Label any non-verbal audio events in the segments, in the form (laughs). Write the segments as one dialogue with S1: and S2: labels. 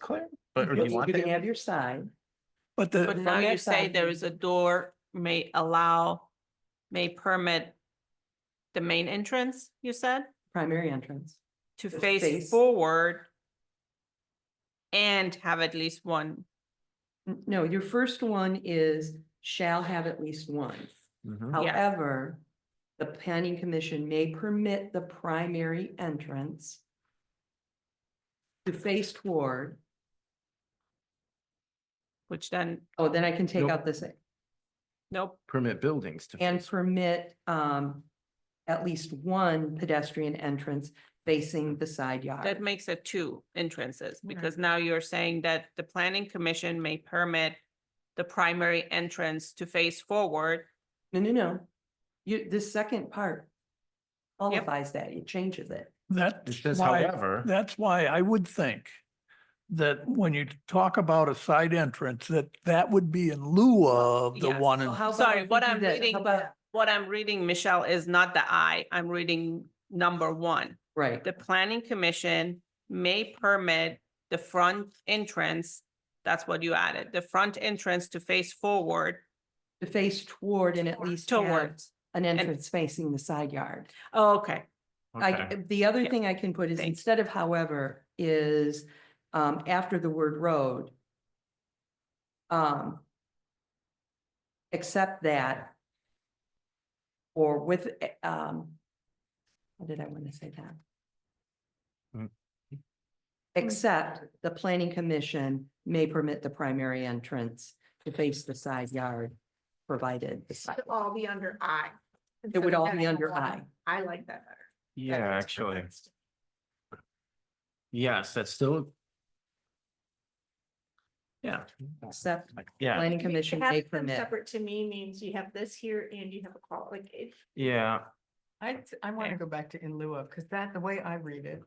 S1: clear.
S2: But or do you
S1: You'll-
S2: want
S1: You can have
S2: that?
S1: your sign,
S3: But the,
S4: But Uh, now
S1: that
S4: you say
S1: side-
S4: there is a door may allow, may permit the main entrance, you said,
S1: primary entrance.
S4: to
S1: To
S4: face
S1: face-
S4: forward and have at least one.
S1: N- No, your first one is shall have at least one.
S2: Mhm.
S4: Yes.
S1: However, the planning commission may permit the primary entrance to face toward,
S4: Which then,
S1: oh, then I can take
S2: Nope.
S1: out this
S4: nope,
S2: Permit buildings to.
S1: and
S2: face-
S1: permit um at least one pedestrian entrance facing the side yard.
S4: that makes it two entrances,
S1: Right.
S4: because now you're saying that the planning commission may permit the primary entrance to face forward.
S1: No, no, no. You, this second part qualifies that, it changes it.
S2: It
S3: that's
S2: says
S3: why,
S2: however.
S3: that's why I would think that when you talk about a side entrance, that that would be in lieu of the
S4: Yes.
S3: one.
S1: So
S3: in-
S1: how about
S4: Sorry,
S1: if we
S4: what
S1: do
S4: I'm
S1: this?
S4: reading-
S1: How about-
S4: What I'm reading, Michelle, is not the I, I'm reading number one.
S1: Right,
S4: the planning commission may permit the front entrance, that's what you added, the front entrance to face forward
S1: to face toward and at least have
S4: towards.
S1: an entrance facing the side yard.
S4: Oh, Okay,
S2: okay.
S1: I, the other
S4: Yeah.
S1: thing I can put is
S4: Thank you.
S1: instead of however is, um, after the word road. Um. Except that. Or with, eh, um. What did I want to say that?
S2: Mm.
S1: Except the planning commission may permit the primary entrance to face the side yard, provided. the side-
S5: It'd all be under I.
S1: It would
S5: instead of
S1: all be
S5: having
S1: under
S5: one.
S1: I.
S5: I like that better.
S2: Yeah,
S5: That makes
S2: actually,
S5: perfect sense.
S2: yes, that's still. Yeah.
S1: Except
S2: like, Yeah,
S1: planning commission
S5: To have
S1: may
S5: them
S1: permit.
S5: Separate to me means you have this here and you have a qual, like, it,
S2: yeah,
S6: I, t- I want to go back to in lieu of, because that, the way I read it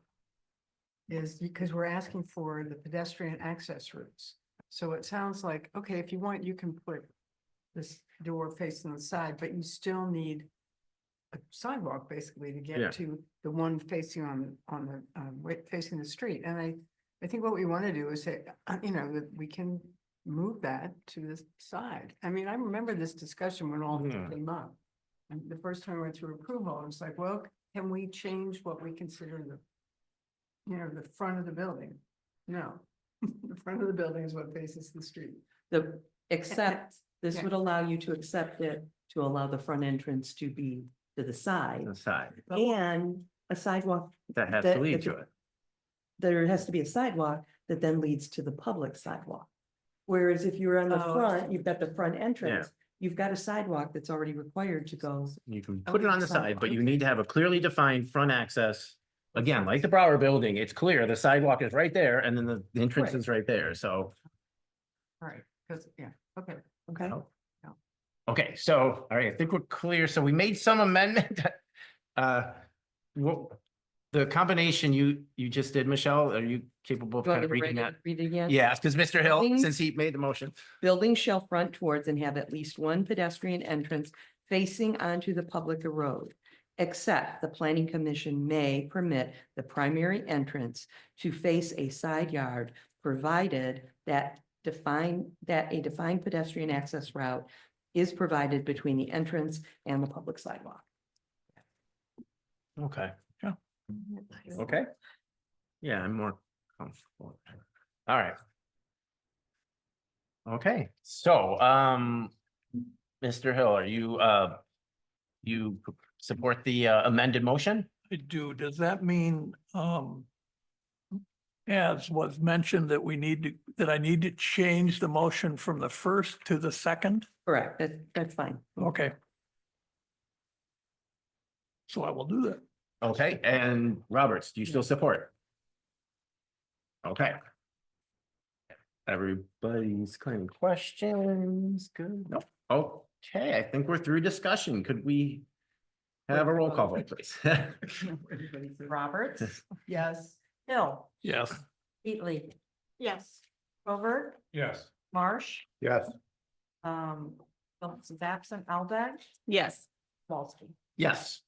S6: is because we're asking for the pedestrian access routes. So it sounds like, okay, if you want, you can put this door facing the side, but you still need a sidewalk basically to
S2: Yeah.
S6: get to the one facing on, on the, um, wa- facing the street. And I, I think what we want to do is say, (clears throat) uh, you know, that we can move that to the side. I mean, I remember this discussion when all this
S2: Mhm.
S6: came up. And the first time I went through approval, I was like, well, can we change what we consider the, you know, the front of the building? No, (laughs) the front of the building is what faces the street.
S1: The, except, this
S6: yeah.
S1: would allow you to accept it, to allow the front entrance to be to the side.
S2: the side
S1: And a sidewalk,
S2: that has
S1: That-
S2: to lead
S1: it's-
S2: to it.
S1: there has to be a sidewalk that then leads to the public sidewalk. Whereas if you're on the
S6: Oh, I
S1: front,
S6: see.
S1: you've got the front entrance, you've got a sidewalk that's already required to go.
S2: You can put it
S6: Okay,
S2: on the side, but you
S6: sidewalk.
S2: need to have a clearly defined front access. Again, like the Brower Building, it's clear, the sidewalk is right there and then the the entrance
S1: Right.
S2: is right there, so.
S6: All right, because, yeah, okay.
S1: Okay,
S2: Oh.
S6: No.
S2: Okay, so, all right, I think we're clear. So we made some amendment. (laughs) Uh, what, the combination you, you just did, Michelle, are you capable of
S1: Do you
S2: kind
S1: want me
S2: of
S1: to
S2: reading
S1: read
S2: that?
S1: it- read it again?
S2: Yeah, because Mr. Hill,
S1: Buildings-
S2: since he made the motion.
S1: Buildings shall front towards and have at least one pedestrian entrance facing onto the public road. Except the planning commission may permit the primary entrance to face a side yard, provided that define, that a defined pedestrian access route is provided between the entrance and the public sidewalk.
S2: Okay. Okay. Yeah, I'm more comfortable. All right. Okay, so, um, Mr. Hill, are you, uh, you support the uh, amended motion?
S3: I do. Does that mean, um, as was mentioned, that we need to, that I need to change the motion from the first to the second?
S1: Correct, that, that's fine.
S3: Okay. So I will do that.
S2: Okay, and Roberts, do you still support? Okay. Everybody's kind of questions, good, no, okay, I think we're through discussion, could we have a roll call vote, please? (laughs)
S7: Roberts,
S6: Yes.
S7: Hill,
S3: Yes.
S7: Heatley,
S5: yes.
S7: Rover,
S2: Yes.
S7: Marsh,
S2: Yes.
S7: um, Phillips is absent, Aldag,
S4: yes.
S7: Walston.
S2: Yes.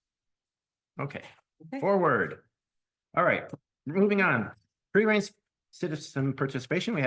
S2: Okay,
S7: Okay.
S2: forward. All right, moving on, pre-race citizen participation. We have